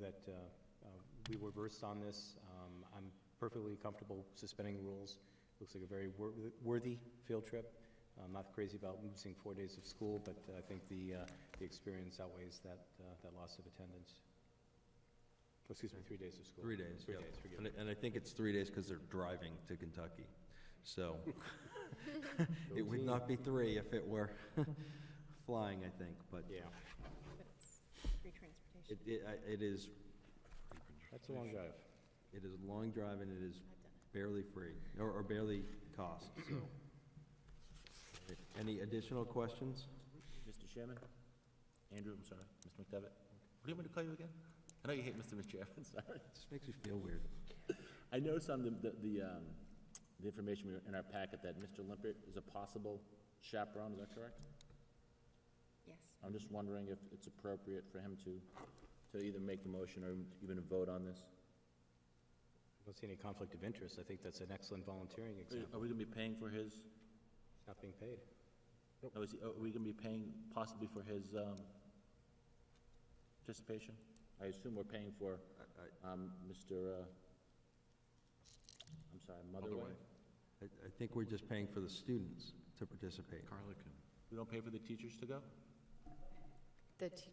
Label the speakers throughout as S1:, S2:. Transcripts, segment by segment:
S1: that uh, uh, we were versed on this. Um, I'm perfectly comfortable suspending rules. Looks like a very wor- worthy field trip. I'm not crazy about losing four days of school, but I think the, uh, the experience outweighs that, uh, that loss of attendance. Oh, Excuse me, three days of school.
S2: Three days,
S1: Three
S2: yeah.
S1: days, forgive
S2: And
S1: me.
S2: I- And I think it's three days because they're driving to Kentucky. So it
S1: Go
S2: would
S1: team.
S2: not be three if it were flying, I think, but
S1: Yeah,
S3: Free
S2: it, it,
S3: transportation.
S2: I- it is,
S1: that's a long drive.
S2: it is a long drive and it is
S3: I've done it.
S2: barely free, or, or barely cost, so. Any additional questions?
S4: Mr. Chairman? Andrew, I'm sorry, Mr. McDevitt? What do you want me to call you again? I know you hate Mr. McChairman, sorry.
S2: It just makes you feel weird.
S4: I noticed on the, the- the, um, the information we were- in our packet that Mr. Limpert is a possible chaperone, is that correct?
S3: Yes.
S4: I'm just wondering if it's appropriate for him to, to either make the motion or even vote on this?
S1: I don't see any conflict of interest. I think that's an excellent volunteering example.
S4: Are we gonna be paying for his,
S1: It's not being paid.
S4: oh, is he- are we gonna be paying possibly for his, um, participation? I assume we're paying for,
S2: I- I-
S4: um, Mr., uh, I'm sorry, Motherway?
S2: Motherway. I, I think we're just paying for the students to participate.
S4: We don't pay for the teachers to go?
S5: That he-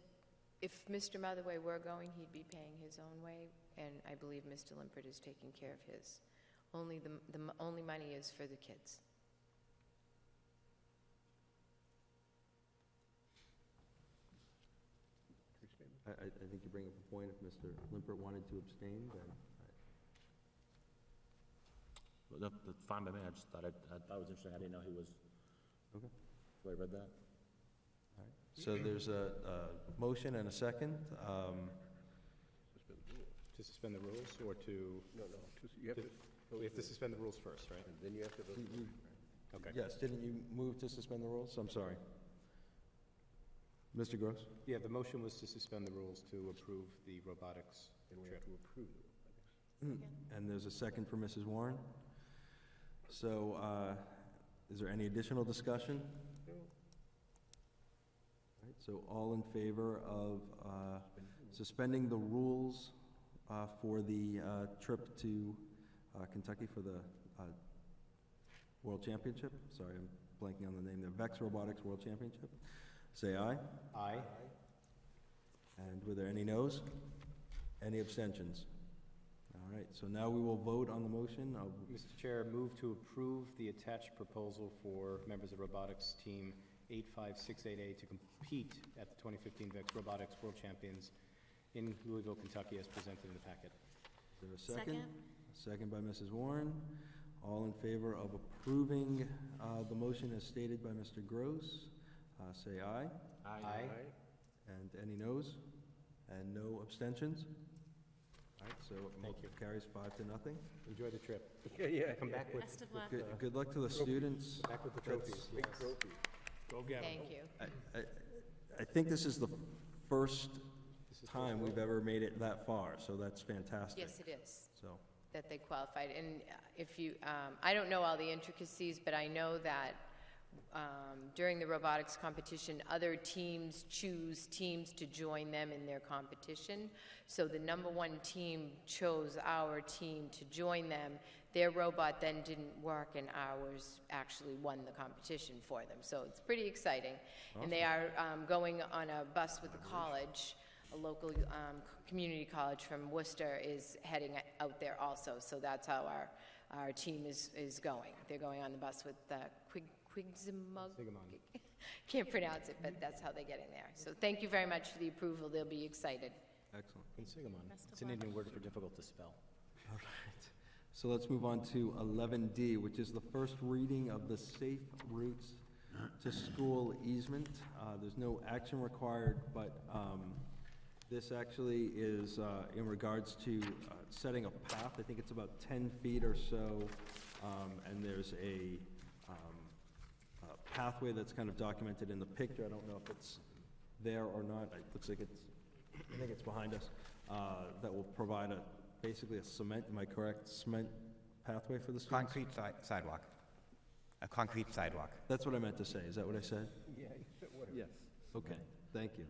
S5: if Mr. Motherway were going, he'd be paying his own way, and I believe Mr. Limpert is taking care of his. Only the, the m- only money is for the kids.
S2: I, I, I think you bring up a point, if Mr. Limpert wanted to abstain, then I-
S4: Well, that- That's fine by me, I just thought, it- I thought it was interesting, I didn't know he was,
S2: Okay.
S4: so I read that.
S2: So there's a, a motion and a second. Um,
S1: To suspend the rules or to,
S6: No, no, just- you have to, Mm-hmm.
S1: we have to suspend the rules first, right?
S6: and then you have to vote.
S1: Okay.
S2: Yes, didn't you move to suspend the rules? I'm sorry. Mr. Gross?
S1: Yeah, the motion was to suspend the rules to approve the robotics
S6: and we
S1: trip.
S6: have to approve it.
S2: And there's a second for Mrs. Warren. So, uh, is there any additional discussion? All right, So all in favor of uh, suspending the rules uh, for the uh, trip to uh, Kentucky for the uh, World Championship? Sorry, I'm blanking on the name there. Vex Robotics World Championship? Say aye.
S1: Aye.
S2: And were there any noes? Any abstentions? All right, so now we will vote on the motion of,
S1: Mr. Chair, move to approve the attached proposal for members of robotics team 85688 to compete at the 2015 VEX Robotics World Champions in Louisville, Kentucky, as presented in the packet.
S2: is there a second? A Second by Mrs. Warren. All in favor of approving uh, the motion as stated by Mr. Gross, uh, say aye.
S1: Aye.
S2: And any noes? And no abstentions? All right, so it mo-
S1: Thank you.
S2: carries five to nothing.
S1: Enjoy the trip.
S6: Yeah, yeah.
S1: Come back with,
S3: Best of luck.
S2: Good- Good luck to the students.
S1: back with the
S2: That's-
S1: trophies.
S6: Big
S1: yes.
S6: trophy. Go get
S5: Thank you.
S2: I, I- I think this is the first time we've ever made it that far, so that's fantastic.
S5: Yes, it is,
S2: So,
S5: that they qualified. And uh, if you, um, I don't know all the intricacies, but I know that um, during the robotics competition, other teams choose teams to join them in their competition. So the number one team chose our team to join them. Their robot then didn't work, and ours actually won the competition for them. So it's pretty exciting. And they are um, going on a bus with the college. A local um, c- community college from Worcester is heading out there also. So that's how our, our team is, is going. They're going on the bus with uh, Quig, Quigsimug.
S1: Sigamon.
S5: Can't pronounce it, but that's how they get in there. So thank you very much for the approval. They'll be excited.
S2: excellent.
S1: Quinsigamon.
S3: Best of
S1: It's an
S3: luck.
S1: Indian word for difficult to spell.
S2: All right. So let's move on to 11D, which is the first reading of the Safe Routes to School easement. Uh, There's no action required, but um, this actually is uh, in regards to uh, setting a path. I think it's about 10 feet or so, um, and there's a um, a pathway that's kind of documented in the picture. I don't know if it's there or not. It looks like it's, I think it's behind us. uh, That will provide a, basically a cement, am I correct, cement pathway for the students?
S7: Concrete si- sidewalk. A concrete sidewalk.
S2: That's what I meant to say. Is that what I said?
S6: Yeah, you said whatever.
S2: Okay, thank you.